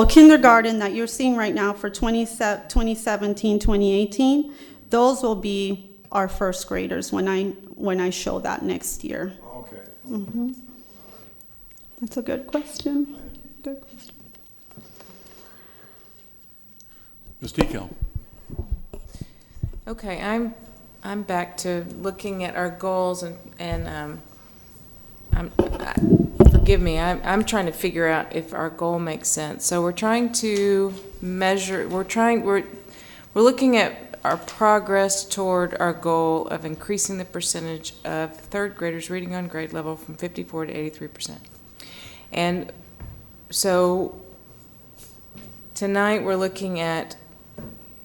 Well, kindergarten that you're seeing right now for 20 se- 2017, 2018, those will be our first graders when I, when I show that next year. Okay. That's a good question. Good question. Ms. Decal? Okay, I'm, I'm back to looking at our goals and, and, um, I'm, I- forgive me, I'm, I'm trying to figure out if our goal makes sense. So we're trying to measure, we're trying, we're, we're looking at our progress toward our goal of increasing the percentage of third graders reading on grade level from fifty-four to eighty-three percent. And so tonight, we're looking at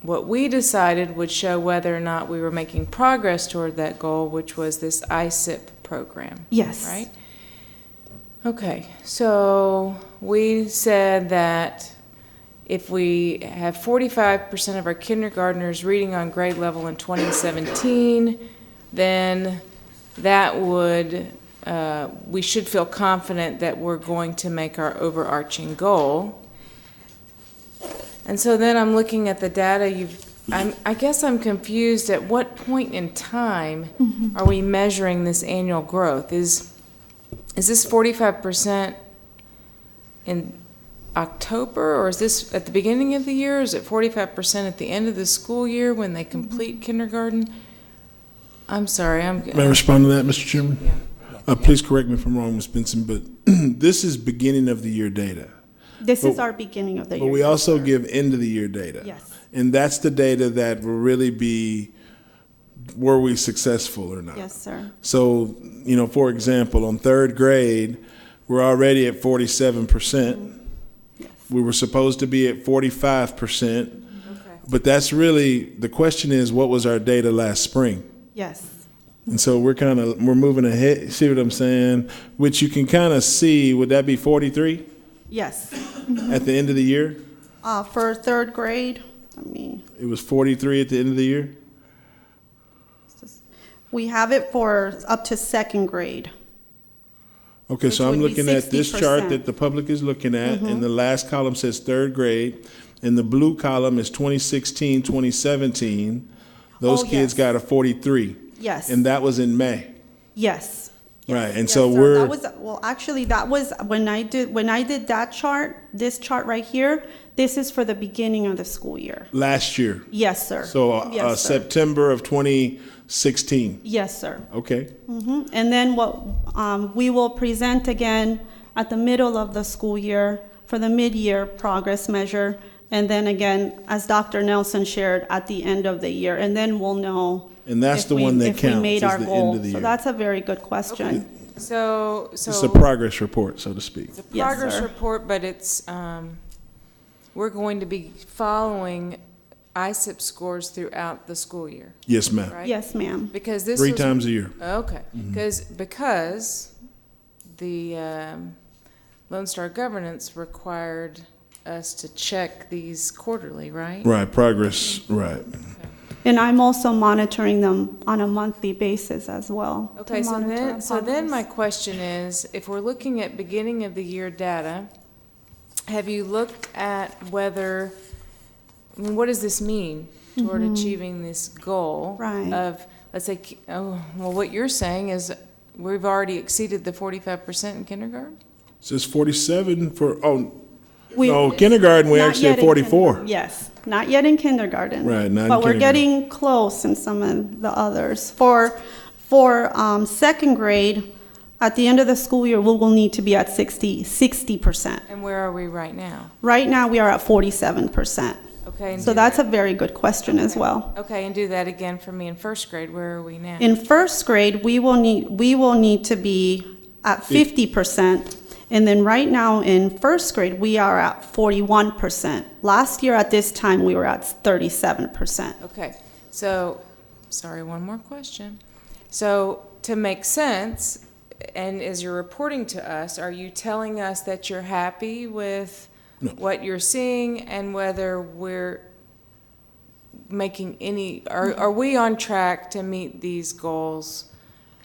what we decided would show whether or not we were making progress toward that goal, which was this ISIP program, Yes. right? Okay, so we said that if we have 45% of our kindergartners reading on grade level in 2017, then that would, uh, we should feel confident that we're going to make our overarching goal. And so then I'm looking at the data you've, I'm, I guess I'm confused at what point in time are we measuring this annual growth? Is, is this forty-five percent in October, or is this at the beginning of the year? Is it forty-five percent at the end of the school year when Mm-hmm. they complete kindergarten? I'm sorry, I'm, May I respond to that, Mr. Chairman? Yeah. Uh, please correct me if I'm wrong, Ms. Benson, but this is beginning of the year data. This is our beginning of the But we year. also give end of the year data. Yes. And that's the data that will really be, were we successful or not? Yes, sir. So, you know, for example, on third grade, we're already at forty-seven percent. Mm-hmm. Yes. We were supposed to be at forty-five percent, okay. but that's really, the question is, what was our data last spring? Yes. And so we're kind of we're moving ahead. See what I'm saying? Which you can kind of see. Would that be 43 Yes. at the end of the year? Uh, for third grade, I mean, It was 43 at the end of the year. we have it for up to second grade. Okay, so Which I'm would be Mm-hmm. looking at this chart 60%. that the public is looking at, and the last column says third grade, and the blue column is 2016, 2017. Those Oh, kids yes. got a 43, Yes. and that was in May, Yes. right? And Yes, so sir. we're That was, well, actually, that was, when I did, when I did that chart, this chart right here, this is for the beginning of the school year. last year, Yes, sir. so uh, Yes, uh, sir. September of 2016. Yes, sir. Okay, Mhm. And then what, um, we will present again at the middle of the school year for the mid-year progress measure. And then again, as Dr. Nelson shared, at the end of the year. And then we'll know. And that's if the we- one that if we counts, made is our the end goal. of the So year. that's a very good question. So, so. it's a progress report, so to speak. It's a Yes, progress sir. report, but it's, um, we're going to be following ISIP scores throughout the school year, Yes, ma'am. right? Yes, ma'am. Because this Three was. times a year. Okay, because, because the, um, Lone Star Governance required us to check these quarterly, right? Right, progress, right. And I'm also monitoring them on a monthly basis as well. to Okay, so monitor then, so then progress. my question is, if we're looking at beginning of the year data, have you looked at whether, I mean, what does this mean toward achieving this goal? Mm-hmm. Right. Of, let's say, ki- oh, well, what you're saying is, we've already exceeded the forty-five percent in kindergarten? So it's 47 for, oh, We- no, kindergarten, we Not actually yet had in kinder- 44. Yes, not yet in kindergarten. Right, not in But we're kindergarten. getting close in some of the others. For, for um, second grade, at the end of the school year, we will need to be at 60, 60%. And where are we right now? Right now, we are at 47%. Okay. and So do that's a that- very good question as okay. well. Okay, and do that again for me in first grade, where are we now? In first grade, we will need, we will need to be at fifty percent. And then right now in first grade, we are at forty-one percent. Last year at this time, we were at thirty-seven percent. Okay, so, sorry, one more question. So, to make sense, and as you're reporting to us, are you telling us that you're happy with No. what you're seeing and whether we're making any, are, are we on track to meet these goals?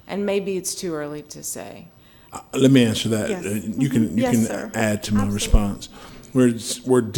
And maybe it's too early to say. Uh, Let me answer that. Yes. Uh, You can, you Yes, can sir. add to my response. We're, we're